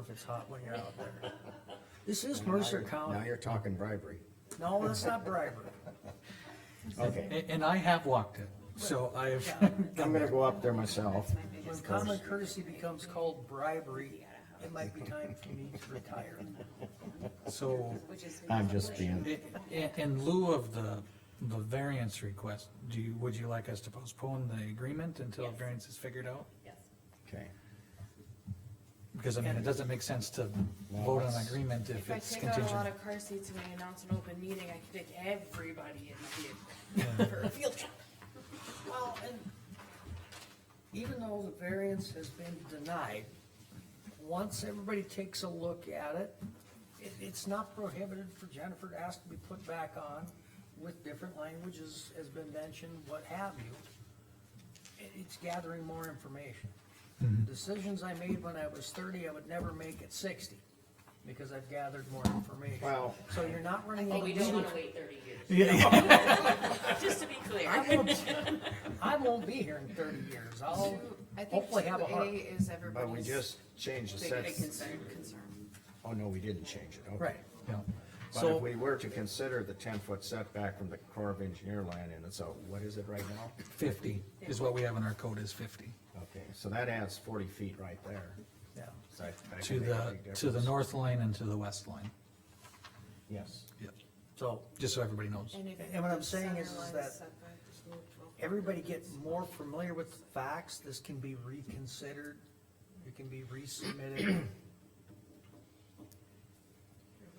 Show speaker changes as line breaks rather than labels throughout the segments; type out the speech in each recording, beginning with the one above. if it's hot when you're out there. This is Mercer
Now
County.
you're talking bribery.
No, that's not bribery.
Okay,
And, and I have walked it, so I've,
I'm gonna go up there myself.
When common courtesy becomes called bribery, it might be time for me to retire.
so
Um,
I'm just being,
i- i- in lieu of the, the variance request, do you, would you like us to postpone the agreement until
Yes.
variance is figured out?
Yes.
okay.
Because I mean, it doesn't make sense to vote on agreement if
If I
it's
take out a lot
contingent.
of car seats and I announce an open meeting, I could take everybody in the vehicle for a field trip.
Well, and even though the variance has been denied, once everybody takes a look at it, it, it's not prohibited for Jennifer to ask to be put back on with different languages, has been mentioned, what have you. It, it's gathering more information. Decisions I made when I was thirty, I would never make at sixty, because I've gathered more information.
Well-
So you're not running. a
But we don't
legal-
wanna wait thirty years,
Yeah,
just to be clear.
I won't, I won't be here in thirty years, I'll
I think two
hopefully have a
A
heart.
is
But we
everybody's
just changed the
big, big
sets.
concern, concern.
Oh, no, we didn't change it, okay.
Right,
yeah.
But if
So,
we were to consider the ten-foot setback from the Corps of Engineer line, and it's a, what is it right now?
fifty is what we have in our code is fifty.
Okay, so that adds forty feet right there.
yeah.
So that- that
To
can make a
the,
big
to the
difference.
north line and to the west line,
Yes.
Yep.
So
just so everybody knows.
if
And what I'm saying is- is
center line
that
setback is moved twelve feet.
everybody get more familiar with the facts, this can be reconsidered, it can be resubmitted.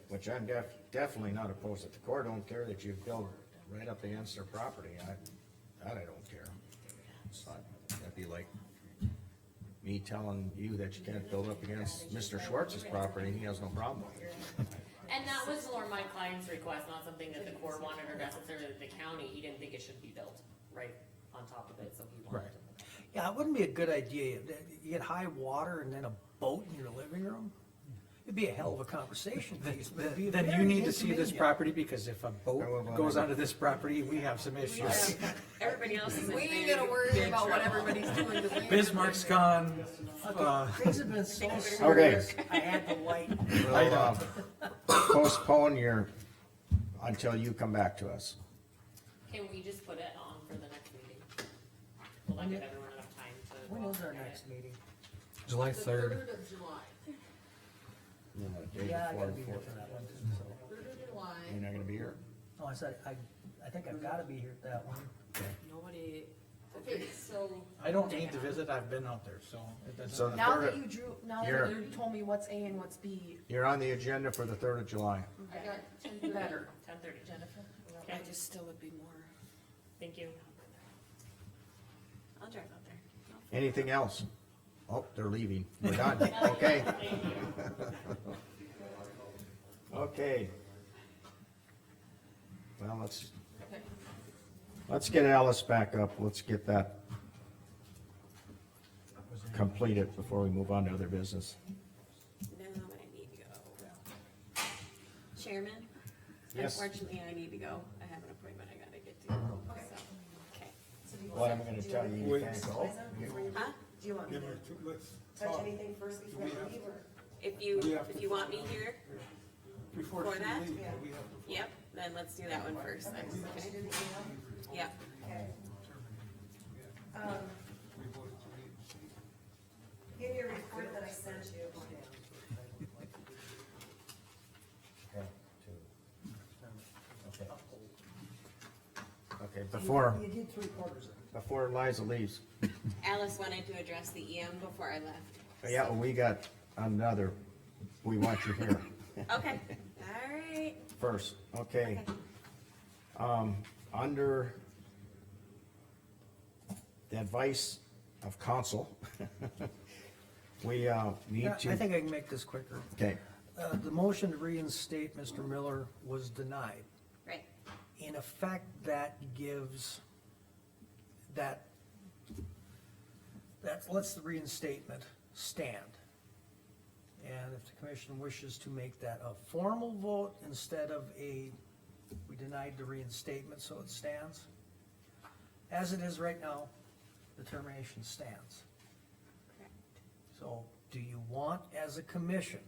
Which I'm def, definitely not opposed to. The Corps don't care that you build right up against their property. I, that I don't care. It's not, that'd be like me telling you that you can't build up against Mr. Schwartz's property and he has no problem with it.
And that was more my client's request, not something that the Corps wanted or necessarily the county, he didn't think it should be built right on top of it, so he wanted.
Right.
to-
Yeah, it wouldn't be a good idea, you get high water and then a boat in your living room, it'd be a hell of a conversation piece, but it'd be
Then you
very
need to see this
inconvenient.
property, because if a
Well, well,
boat
well,
goes
I-
onto this property, we have some issues.
Everybody else is. in
We ain't
big-
gonna worry
big
about what
trouble.
everybody's doing. 'cause we ain't
Bismarck's
gonna
gone, uh,
Things have been so
Okay.
serious, I had to light,
We'll, uh, Postpone your, until you come back to us.
Can we just put it on for the next meeting? Will that give everyone enough time to?
when is our
look at
next
it?
meeting?
July third,
Third of July,
You know, the day
Yeah, I
before,
gotta be here
before-
for that one, too, so.
third of July,
You're not gonna be here?
Oh, I said, I, I think I've gotta be here at that one.
Nobody.
okay, so,
I don't need to visit, I've been out there, so it
So
doesn't,
the
Now
third,
that you drew, now
You're-
that you told me what's A and what's B,
you're on the agenda for the third of July.
I got ten thirty.
better.
Ten thirty, Jennifer,
I just still would be more.
thank you. I'll drive out there.
Anything else? Oh, they're leaving. We're done. Okay.
Thank you.
Okay. Well, let's, let's get Alice back up, let's get that completed before we move on to other business.
No, I need to go. Chairman?
Yes.
Unfortunately, I need to go. I have an appointment I gotta get to. so, Okay.
What I'm gonna tell you, you can't go.
Huh?
Do you want me to
Let's
touch
talk
anything first before you leave, or?
If you,
We have
if
to-
you want me here,
before
for
she
that?
leaves. We have to
yep, then let's do that one first. then, okay? Yep.
Okay. Um, Give me a report that I sent you.
Okay, before,
You did three quarters of it.
before Liza leaves,
Alice wanted to address the EM before I left.
yeah, we got another, we want you here
Okay, all right.
first, okay? Um, under the advice of counsel, we, uh, need
Yeah,
to.
I think I can make this quicker.
Okay,
Uh, the motion to reinstate Mr. Miller was denied.
Right,
In effect, that gives that, that lets the reinstatement stand. And if the commission wishes to make that a formal vote instead of a, we denied the reinstatement, so it stands. As it is right now, the termination stands.
correct.
So do you want as a commission?